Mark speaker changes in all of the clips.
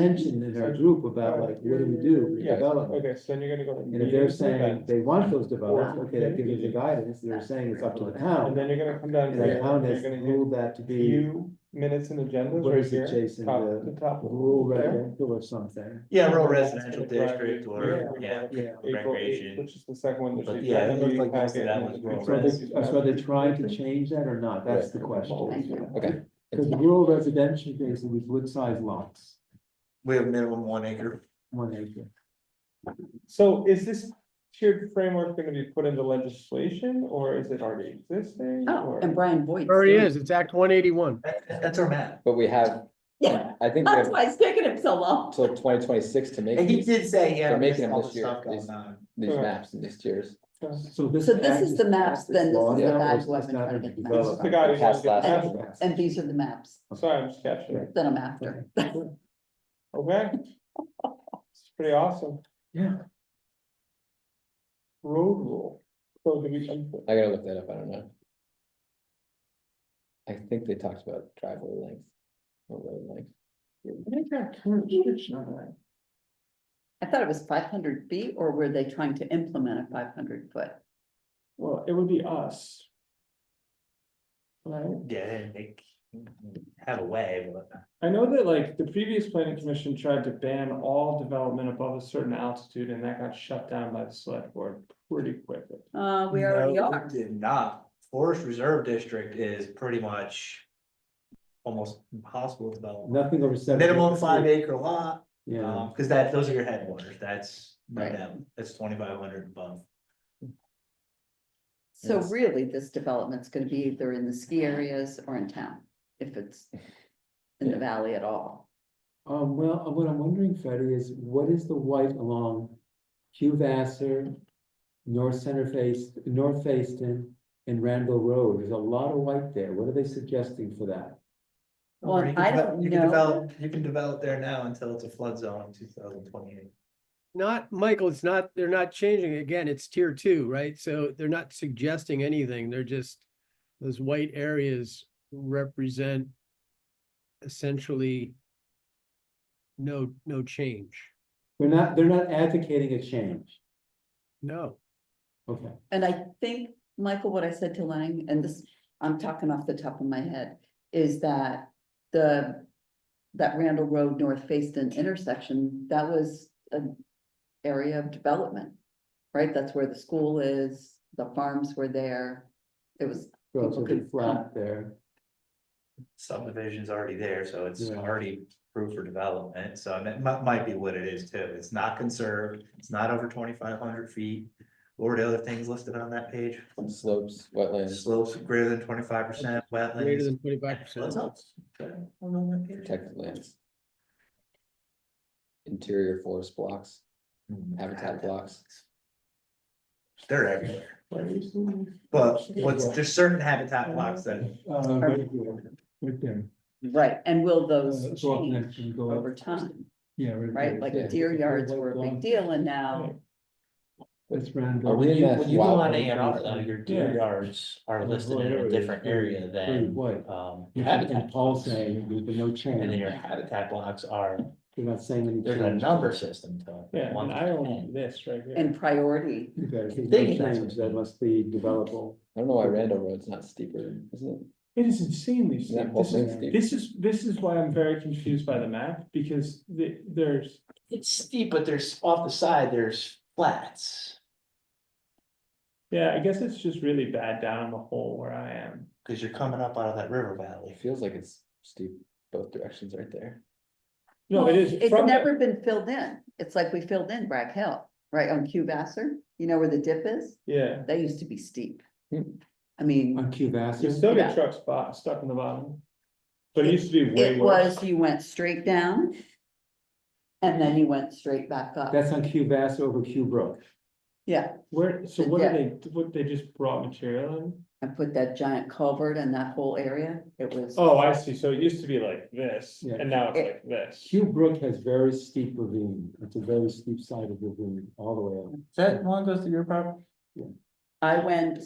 Speaker 1: tension in our group about like, what do we do with
Speaker 2: Yeah,
Speaker 1: development?
Speaker 2: okay, so then you're gonna go. to
Speaker 1: And if they're
Speaker 2: meetings,
Speaker 1: saying
Speaker 2: events,
Speaker 1: they want those developed, okay, that gives us the
Speaker 2: Yeah.
Speaker 1: guidance, they're saying it's up to the
Speaker 2: And
Speaker 1: town.
Speaker 2: then you're gonna come down.
Speaker 1: And
Speaker 2: here,
Speaker 1: the town
Speaker 2: You're
Speaker 1: has
Speaker 2: gonna do
Speaker 1: ruled that to be
Speaker 2: few minutes and agendas
Speaker 1: What
Speaker 2: right
Speaker 1: is it,
Speaker 2: here.
Speaker 1: Jason,
Speaker 2: top-
Speaker 1: the
Speaker 2: The top.
Speaker 1: rural
Speaker 2: there.
Speaker 1: residential or something,
Speaker 3: Yeah, rural
Speaker 2: That's
Speaker 3: residential
Speaker 2: gonna drive
Speaker 3: district
Speaker 2: you-
Speaker 3: or, yeah.
Speaker 1: yeah.
Speaker 2: April eighth,
Speaker 3: recreation.
Speaker 2: which is the second one. that
Speaker 3: But
Speaker 2: she's
Speaker 3: yeah,
Speaker 2: got.
Speaker 3: it looks like most of that one's rural
Speaker 1: So
Speaker 3: res.
Speaker 1: they- so they're trying to change that or not, that's the question.
Speaker 4: Okay.
Speaker 1: Because rural residential basically with wood-sized lots,
Speaker 3: We have minimum one acre.
Speaker 1: one acre.
Speaker 2: So is this tiered framework gonna be put into legislation or is it already existing?
Speaker 4: Oh,
Speaker 2: or-
Speaker 4: and Brian Boyd.
Speaker 5: Already is, it's Act one eighty-one.
Speaker 3: That- That's our map.
Speaker 4: But we have,
Speaker 6: Yeah,
Speaker 4: I think we
Speaker 6: that's
Speaker 4: have
Speaker 6: why it's taking him so long.
Speaker 4: till twenty twenty-six to make
Speaker 3: And he
Speaker 4: these,
Speaker 3: did say, yeah,
Speaker 4: They're
Speaker 3: there's
Speaker 4: making them
Speaker 3: all
Speaker 4: this
Speaker 3: this
Speaker 4: year,
Speaker 3: stuff
Speaker 4: these-
Speaker 3: going on.
Speaker 4: these
Speaker 2: Correct.
Speaker 4: maps and these tiers.
Speaker 1: So this.
Speaker 6: So this
Speaker 1: act
Speaker 6: is the maps,
Speaker 1: passed as
Speaker 6: then this
Speaker 1: law
Speaker 6: is the
Speaker 1: now, or
Speaker 6: guide
Speaker 1: is
Speaker 6: we're
Speaker 1: this
Speaker 6: gonna
Speaker 1: not
Speaker 6: try to
Speaker 1: been
Speaker 6: get the
Speaker 1: developed?
Speaker 2: This is the guy who's gonna
Speaker 4: Past
Speaker 2: get the
Speaker 4: that.
Speaker 2: contract.
Speaker 6: And these are the maps
Speaker 2: Sorry, I'm just catching it.
Speaker 6: that I'm after.
Speaker 2: Okay. It's pretty awesome.
Speaker 1: Yeah.
Speaker 2: Road rule. So do we, I'm-
Speaker 4: I gotta look that up, I don't know. I think they talked about driveway length. Or road length,
Speaker 6: I thought it was five hundred feet, or were they trying to implement a five hundred foot?
Speaker 2: well, it would be us. Right?
Speaker 3: Yeah, they have a way, but.
Speaker 2: I know that like the previous planning commission tried to ban all development above a certain altitude and that got shut down by the select board pretty quickly.
Speaker 6: Uh, we already
Speaker 3: No,
Speaker 6: are.
Speaker 3: Did not. Forest Reserve District is pretty much almost impossible to develop.
Speaker 1: Nothing over seven.
Speaker 3: Minimum five acre lot,
Speaker 1: Yeah,
Speaker 3: um, cause that, those are your headwaters, that's,
Speaker 6: Right.
Speaker 3: them. that's twenty-five hundred above.
Speaker 6: So
Speaker 3: Yes.
Speaker 6: really, this development's gonna be either in the ski areas or in town, if it's in the
Speaker 1: Yeah.
Speaker 6: valley at all.
Speaker 1: um, well, what I'm wondering, Freddie, is what is the white along Hugh Vassar, North Center Face, North Facetown, and Randall Road, there's a lot of white there, what are they suggesting for that?
Speaker 6: Well,
Speaker 3: Or you can
Speaker 6: I
Speaker 3: develop-
Speaker 6: don't
Speaker 3: you can
Speaker 6: know.
Speaker 3: develop- You can develop there now until it's a flood zone in two thousand twenty-eight.
Speaker 5: Not, Michael, it's not, they're not changing. Again, it's tier two, right? So they're not suggesting anything. They're just, those white areas represent essentially no, no change.
Speaker 1: They're not, they're not advocating a change,
Speaker 5: No.
Speaker 1: okay,
Speaker 6: And I think, Michael, what I said to Lang, and this, I'm talking off the top of my head, is that the. That Randall Road North Facein intersection, that was an area of development. Right? That's where the school is, the farms were there. It was,
Speaker 1: relatively
Speaker 6: could
Speaker 1: flat there,
Speaker 3: Subdivision's already there, so it's
Speaker 1: Yeah.
Speaker 3: already approved for development, so I mean, it might, might be what it is too. It's not conserved, it's not over twenty-five hundred feet. What were the other things listed on that page?
Speaker 4: slopes, wetlands,
Speaker 3: Slopes greater than twenty-five percent,
Speaker 5: Greater
Speaker 3: wetlands.
Speaker 5: than twenty-five
Speaker 3: What's
Speaker 5: percent.
Speaker 3: up? Okay, I'm on that page.
Speaker 4: protected lands. Interior forest blocks,
Speaker 3: Hmm,
Speaker 4: habitat blocks,
Speaker 3: They're everywhere, but what's, there's certain habitat blocks that,
Speaker 1: uh, right here, right there.
Speaker 6: right, and will those
Speaker 1: Uh, so often it
Speaker 6: change
Speaker 1: can go up.
Speaker 6: Oh, over time,
Speaker 1: Yeah. there.
Speaker 6: right?
Speaker 4: Yeah.
Speaker 6: Like deer yards were a big deal and now,
Speaker 1: That's Randall.
Speaker 4: Are we in that
Speaker 7: When you go
Speaker 4: Wow.
Speaker 7: on A and R though, your
Speaker 1: Yeah.
Speaker 7: deer yards are listed in a different area
Speaker 1: Very
Speaker 7: than,
Speaker 2: Hmm.
Speaker 1: white.
Speaker 7: um, your
Speaker 1: And
Speaker 7: habitat.
Speaker 1: Paul
Speaker 7: blocks.
Speaker 1: saying there's been no
Speaker 7: And then
Speaker 1: change,
Speaker 7: your habitat blocks are,
Speaker 1: you're not saying any.
Speaker 7: there's a
Speaker 1: change.
Speaker 7: number system to it.
Speaker 2: Yeah,
Speaker 7: one
Speaker 2: and
Speaker 7: to
Speaker 2: I own
Speaker 7: 10.
Speaker 2: this right here.
Speaker 6: and priority,
Speaker 1: Okay, if there's
Speaker 7: Thinking
Speaker 1: no
Speaker 7: that's
Speaker 1: change,
Speaker 7: what-
Speaker 1: that must be developable.
Speaker 4: I don't know why Randall Road's not steeper, isn't
Speaker 2: It is insanely
Speaker 4: it? Isn't that
Speaker 2: steep.
Speaker 4: whole
Speaker 2: This is,
Speaker 4: thing steep?
Speaker 2: this is, this is why I'm very confused by the map, because the, there's,
Speaker 7: It's steep, but there's off the side, there's flats,
Speaker 2: yeah, I guess it's just really bad down in the hole where I am.
Speaker 3: because you're coming up out of that river valley.
Speaker 4: It feels like it's steep both directions right there.
Speaker 2: No, it
Speaker 6: Well,
Speaker 2: is.
Speaker 6: It's
Speaker 2: from the-
Speaker 6: never been filled in. It's like we filled in Bragg Hill, right on Cube Vassar, you know where the dip is?
Speaker 2: Yeah,
Speaker 6: That used to be steep.
Speaker 4: Hmm.
Speaker 6: I mean,
Speaker 1: On Cubasser.
Speaker 2: you still
Speaker 6: Yeah.
Speaker 2: get trucks bo- stuck in the bottom. But it used to be way
Speaker 6: it
Speaker 2: worse.
Speaker 6: was, you went straight down. And then you went straight back up.
Speaker 1: That's on Cubasser over Cube Brook.
Speaker 6: Yeah,
Speaker 2: Where, so
Speaker 6: The
Speaker 2: what are they, what, they just brought material in?
Speaker 6: I put that giant culvert in that whole area. It was,
Speaker 2: Oh, I see, so it used to be like this,
Speaker 1: Yeah.
Speaker 2: and now it's
Speaker 6: It-
Speaker 2: like this.
Speaker 1: Cube Brook has very steep ravine. It's a very steep side of ravine all the way up.
Speaker 3: Is that one goes through your property?
Speaker 6: I went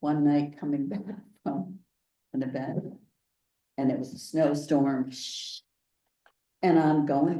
Speaker 6: one night coming back from an event. And it was a snowstorm. And I'm going